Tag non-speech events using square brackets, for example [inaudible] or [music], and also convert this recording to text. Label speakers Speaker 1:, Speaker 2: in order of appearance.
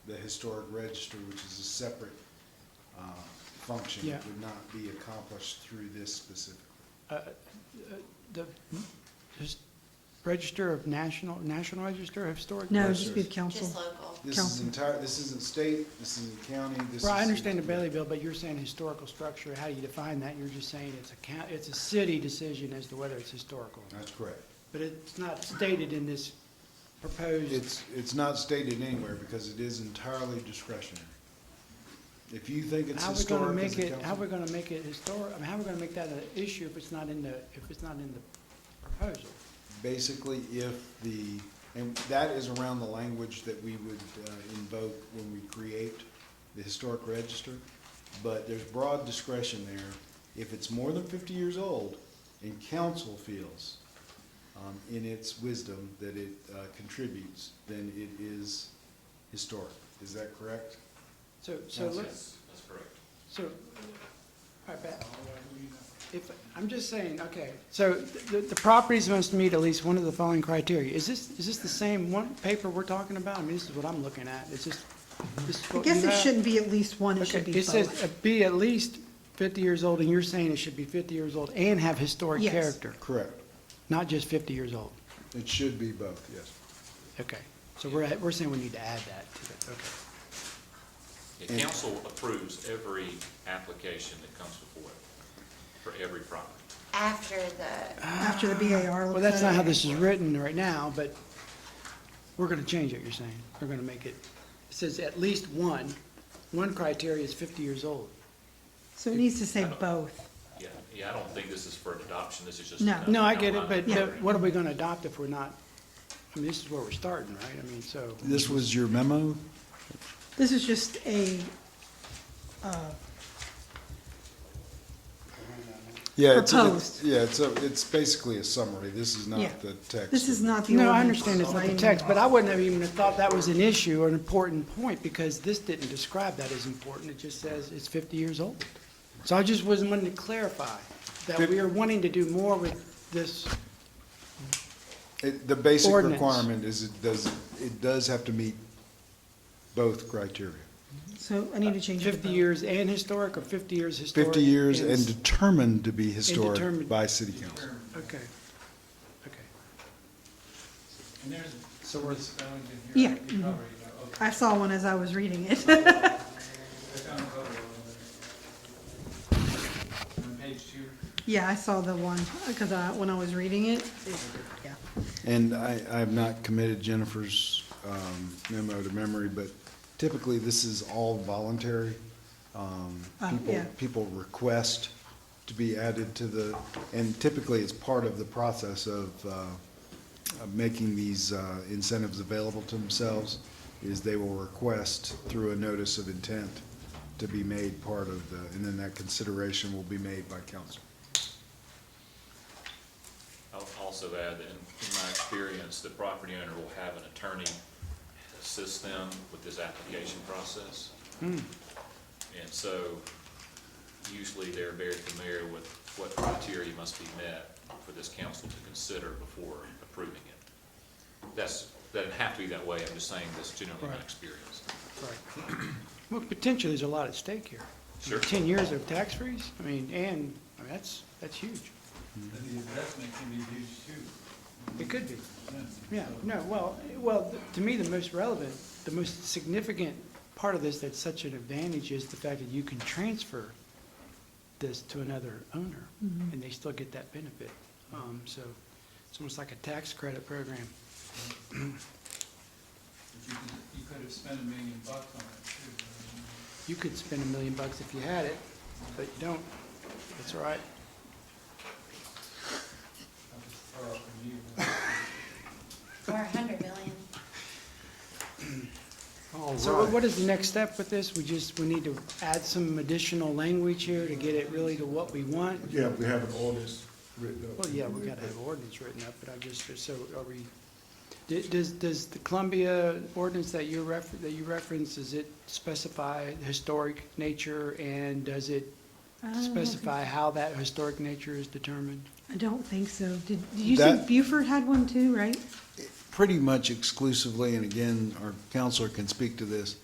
Speaker 1: the historic register, which is a separate uh, function.
Speaker 2: Yeah.
Speaker 1: It would not be accomplished through this specifically.
Speaker 2: The just Register of National, National Register of Historic?
Speaker 3: No,
Speaker 1: Yes,
Speaker 3: just
Speaker 1: sir.
Speaker 3: be council.
Speaker 4: Just local.
Speaker 1: This is
Speaker 3: Council.
Speaker 1: entire, this isn't state, this isn't county, this is.
Speaker 2: Well, I understand the Bailey bill, but you're saying historical structure, how do you define that? You're just saying it's a coun, it's a city decision as to whether it's historical.
Speaker 1: That's correct.
Speaker 2: But it's not stated in this proposed,
Speaker 1: It's, it's not stated anywhere because it is entirely discretionary. If you think it's
Speaker 2: how are we gonna
Speaker 1: historic as
Speaker 2: make
Speaker 1: a
Speaker 2: it, how are we
Speaker 1: council,
Speaker 2: gonna make it historic, I mean, how are we gonna make that an issue if it's not in the, if it's not in the proposal?
Speaker 1: basically if the, and that is around the language that we would uh, invoke when we create the historic register. But there's broad discretion there. If it's more than fifty years old and council feels um, in its wisdom that it uh, contributes, then it is historic. Is that correct?
Speaker 2: So, so
Speaker 1: Yes.
Speaker 2: let's,
Speaker 5: That's correct.
Speaker 2: So, all right, Pat. If, I'm just saying, okay, so the, the properties must meet at least one of the following criteria. Is this, is this the same one paper we're talking about? I mean, this is what I'm looking at. It's just, this is
Speaker 3: I
Speaker 2: what
Speaker 3: guess
Speaker 2: you
Speaker 3: it
Speaker 2: have.
Speaker 3: shouldn't be at least one, it
Speaker 2: Okay,
Speaker 3: should be
Speaker 2: It says, uh,
Speaker 3: both.
Speaker 2: be at least fifty years old, and you're saying it should be fifty years old and have historic
Speaker 3: Yes.
Speaker 2: character,
Speaker 1: Correct.
Speaker 2: not just fifty years old.
Speaker 1: It should be both, yes.
Speaker 2: Okay, so we're, at- we're saying we need to add that to it, okay.
Speaker 5: The council approves every application that comes before it, for every property.
Speaker 4: After the,
Speaker 3: After the BAR.
Speaker 2: Well,
Speaker 3: looks
Speaker 2: that's
Speaker 3: at
Speaker 2: not
Speaker 3: it.
Speaker 2: how this is written right now, but we're gonna change it, you're saying. We're gonna make it, it says at least one. One criteria is fifty years old.
Speaker 3: So it needs to say both.
Speaker 5: Yeah, yeah, I don't think this is for an adoption, this is just.
Speaker 3: No.
Speaker 5: another
Speaker 2: No, I get it,
Speaker 5: outline.
Speaker 2: but but what are we gonna adopt if we're not, I mean, this is where we're starting, right? I mean, so,
Speaker 1: This was your memo?
Speaker 3: This is just a,
Speaker 1: Yeah. it's- it's-
Speaker 3: Proposed.
Speaker 1: Yeah, it's, a- it's basically a summary. This is
Speaker 3: Yeah.
Speaker 1: not the text.
Speaker 3: this is not the
Speaker 2: no, I
Speaker 3: ordinance.
Speaker 2: understand it's not the text, but I wouldn't have even thought that was an issue or an important point, because this didn't describe that as important. It just says it's fifty years old. So I just wasn't wanting to clarify that we are wanting to do more with this
Speaker 1: It- The basic
Speaker 2: Ordinance.
Speaker 1: requirement is it does, it does have to meet both criteria.
Speaker 3: So I need to change it to
Speaker 2: 50
Speaker 3: both.
Speaker 2: years and historic, or 50 years historic?
Speaker 1: 50 years
Speaker 2: and-
Speaker 1: and determined to be historic
Speaker 2: determined.
Speaker 1: by city council.
Speaker 2: Okay, okay.
Speaker 6: And there's
Speaker 2: So we're-
Speaker 6: spellings in
Speaker 3: Yeah,
Speaker 6: here. that You
Speaker 3: mhm.
Speaker 6: probably know. Okay,
Speaker 3: I saw one as I was reading it. [laughs]
Speaker 6: I found a photo of it. On page two.
Speaker 3: Yeah, I saw the one, because I, when I was reading it, it, yeah.
Speaker 1: And I, I have not committed Jennifer's um, memo to memory, but typically this is all voluntary. Um,
Speaker 3: Uh,
Speaker 1: People,
Speaker 3: yeah.
Speaker 1: people request to be added to the, and typically it's part of the process of, uh, of making these uh, incentives available to themselves, is they will request through a notice of intent to be made part of the, and then that consideration will be made by council.
Speaker 5: I'll also add that in in my experience, the property owner will have an attorney assist them with this application process. And so usually they're very familiar with what criteria must be met for this council to consider before approving it. That's, that doesn't have to be that way, I'm just saying this generally my
Speaker 2: Right.
Speaker 5: experience.
Speaker 2: right. Well, potentially, there's a lot at stake here. I mean,
Speaker 5: Sure.
Speaker 2: 10 years of tax freeze, I mean, and, I mean, that's, that's huge.
Speaker 6: And the investment can be huge too.
Speaker 2: It could be.
Speaker 6: Yeah.
Speaker 2: Yeah, no, well, well, to me, the most relevant, the most significant part of this that's such an advantage is the fact that you can transfer this to another owner, and they still get that benefit. Um, So it's almost like a tax credit program.
Speaker 6: But You could, you could have spent a million bucks on it too. I mean,
Speaker 2: You could spend a million bucks if you had it, but you don't. That's all right.
Speaker 6: That was far off from you.
Speaker 4: or 100 million.
Speaker 2: So what is the next step with this? We just, we need to add some additional language here to get it really to what we want?
Speaker 7: Yeah, we have an ordinance written up.
Speaker 2: Well, yeah, we gotta have ordinance written up, but I just, so are we, d- does, does the Columbia ordinance that you refer, that you reference, does it specify historic nature? And does it
Speaker 3: I don't know.
Speaker 2: specify how that historic nature is determined?
Speaker 3: I don't think so. Did, did you
Speaker 1: That-
Speaker 3: think Buford had one too, right?
Speaker 1: pretty much exclusively, and again, our counselor can speak to this,